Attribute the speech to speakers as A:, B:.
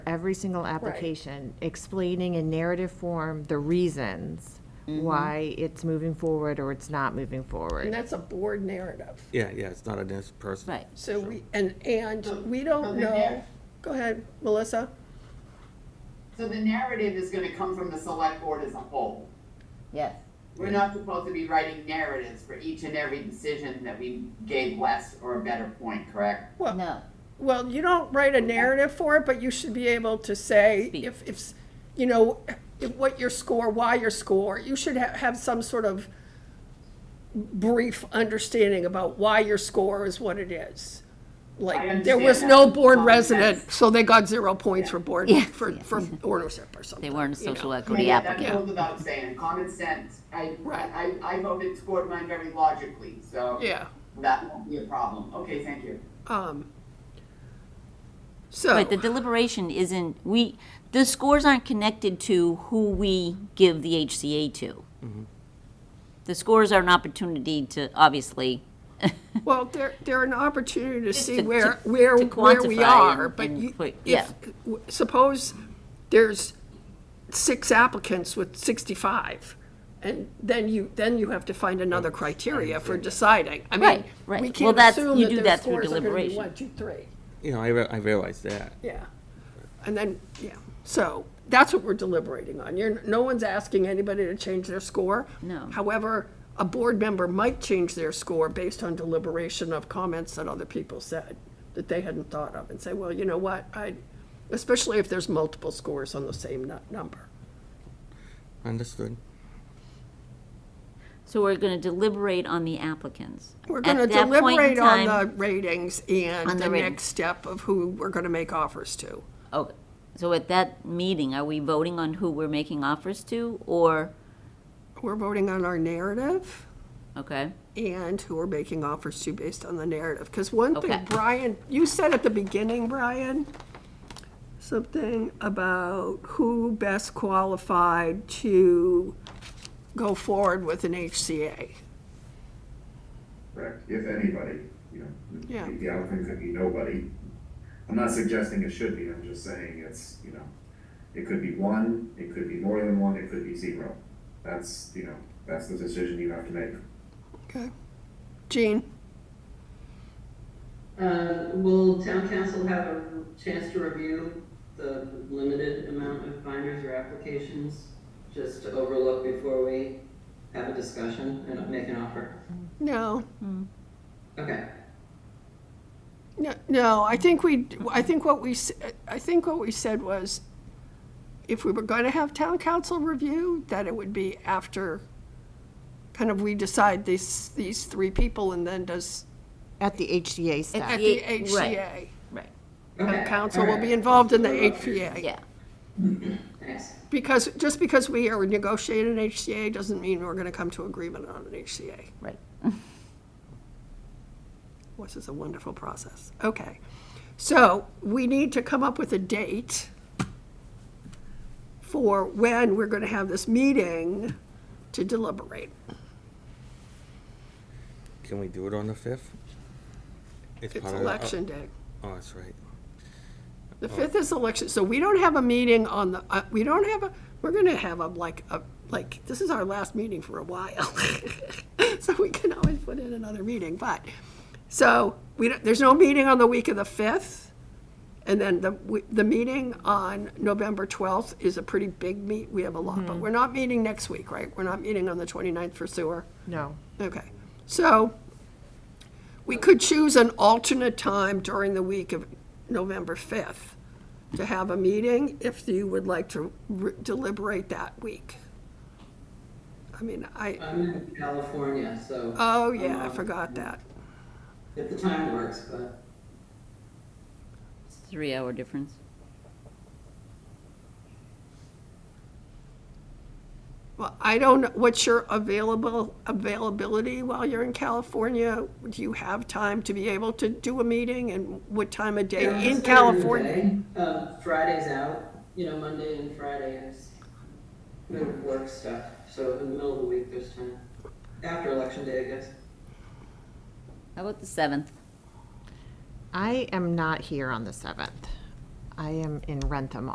A: every single application, explaining in narrative form the reasons why it's moving forward or it's not moving
B: And
A: forward.
B: that's a board narrative.
C: Yeah, yeah, it's not a dense person.
D: Right.
B: So we, and, and we don't
E: Over
B: know,
E: there.
B: go ahead, Melissa.
E: So the narrative is gonna come from the select board as a whole.
D: Yes.
E: We're not supposed to be writing narratives for each and every decision that we gave less or a better point, correct?
B: Well,
D: No.
B: well, you don't write a narrative for it, but you should be able to say
D: Speak.
B: if, if, you know, if what your score, why your score. You should have, have some sort of brief understanding about why your score is what it is. Like, there
E: understand
B: was
E: that.
B: no board
E: Common
B: resident,
E: sense.
B: so they got zero points for board,
D: Yeah.
B: for, for ownership or something.
D: They weren't a
B: you know.
D: social equity
E: Yeah, That
D: applicant.
E: goes without saying, common sense, I,
B: Right.
E: I, I voted toward mine very logically, so.
B: Yeah.
E: That won't be a problem, okay, thank you.
B: Um, So.
D: But the deliberation isn't, we, the scores aren't connected to who we give the HCA to.
C: Mm-hmm.
D: The scores are an opportunity to, obviously,
B: Well, they're, they're an opportunity to see
D: to-
B: where,
D: to-
B: where,
D: to
B: where we
D: quantify
B: are,
D: and-
B: but
D: and
B: you,
D: put- yeah.
B: if, w- suppose there's six applicants with sixty-five, and then you, then you have to find another criteria for deciding. I mean,
D: Right, right.
B: we
D: Well,
B: can't
D: that's-
B: assume
D: you
B: that
D: do
B: their
D: that through
B: scores are gonna be
D: deliberation.
B: one, two, three,
C: You know, I, re- I realize that.
B: yeah. And then, yeah, so, that's what we're deliberating on. You're, no one's asking anybody to change their score.
D: No.
B: However, a board member might change their score based on deliberation of comments that other people said that they hadn't thought of and say, well, you know what, I, especially if there's multiple scores on the same nu- number.
C: Understood.
D: so we're going to deliberate on the applicants.
B: We're
D: At
B: gonna
D: that point in
B: deliberate on
D: time-
B: the ratings
D: On
B: and
D: the
B: the
D: ratings.
B: next step of who we're gonna make offers to.
D: Okay, oh, so at that meeting, are we voting on who we're making offers to, or,
B: We're voting on our narrative.
D: okay?
B: and who are making offers to based on the narrative. Because one
D: Okay.
B: thing, Brian, you said at the beginning, Brian, something about who best qualified to go forward with an HCA.
F: Correct, if anybody, you know.
B: Yeah.
F: The applicant could be nobody. I'm not suggesting it should be, I'm just saying it's, you know, it could be one, it could be more than one, it could be zero. That's, you know, that's the decision you have to make.
B: Okay. Jean?
G: Uh, Will town council have a chance to review the limited amount of binders or applications just to overlook before we have a discussion and make an offer?
B: No.
G: Okay.
B: No, no, I think we, I think what we, s- I think what we said was, if we were going to have town council review, that it would be after, kind of, we decide these, these three people, and then does,
A: At the HCA
B: at
A: step.
B: the
D: Yeah, right.
B: HCA.
D: Right,
B: Town
G: Okay,
B: council will be
G: alright.
B: involved in the
G: Overlook.
B: HCA.
D: yeah,
G: Thanks.
B: Because, just because we are negotiating an HCA doesn't mean we're going to come to agreement on an HCA.
D: right.
B: which is a wonderful process. Okay, so we need to come up with a date for when we're going to have this meeting to deliberate.
C: Can we do it on the fifth?
B: It's
C: part of the-
B: election day.
C: Oh, that's right.
B: The fifth is election, so we don't have a meeting on the, uh, we don't have a, we're going to have a, like, a, like, this is our last meeting for a while. So we can always put in another meeting, but, so, we, don't- there's no meeting on the week of the fifth. And then the, we- the meeting on November 12th is a pretty big meet, we have a lot, but we're not meeting next week, right? We're not meeting on the 29th for sewer.
A: No.
B: Okay, so we could choose an alternate time during the week of November 5th to have a meeting if you would like to re- deliberate that week. I mean, I,
G: I'm in California, so.
B: oh yeah, I
G: Um,
B: forgot that.
G: If the time works, but
D: It's a three-hour difference.
B: Well, I don't, know what's your available, availability while you're in California? Do you have time to be able to do a meeting and what time of day
G: Yeah, it's
B: in
G: later in the
B: California?
G: day. Um, Friday's out, you know, Monday and Friday is middle of work stuff, so in the middle of the week, there's time. After election day, I guess.
D: How about the seventh?
A: I am not here on the 7th. I am in Rentham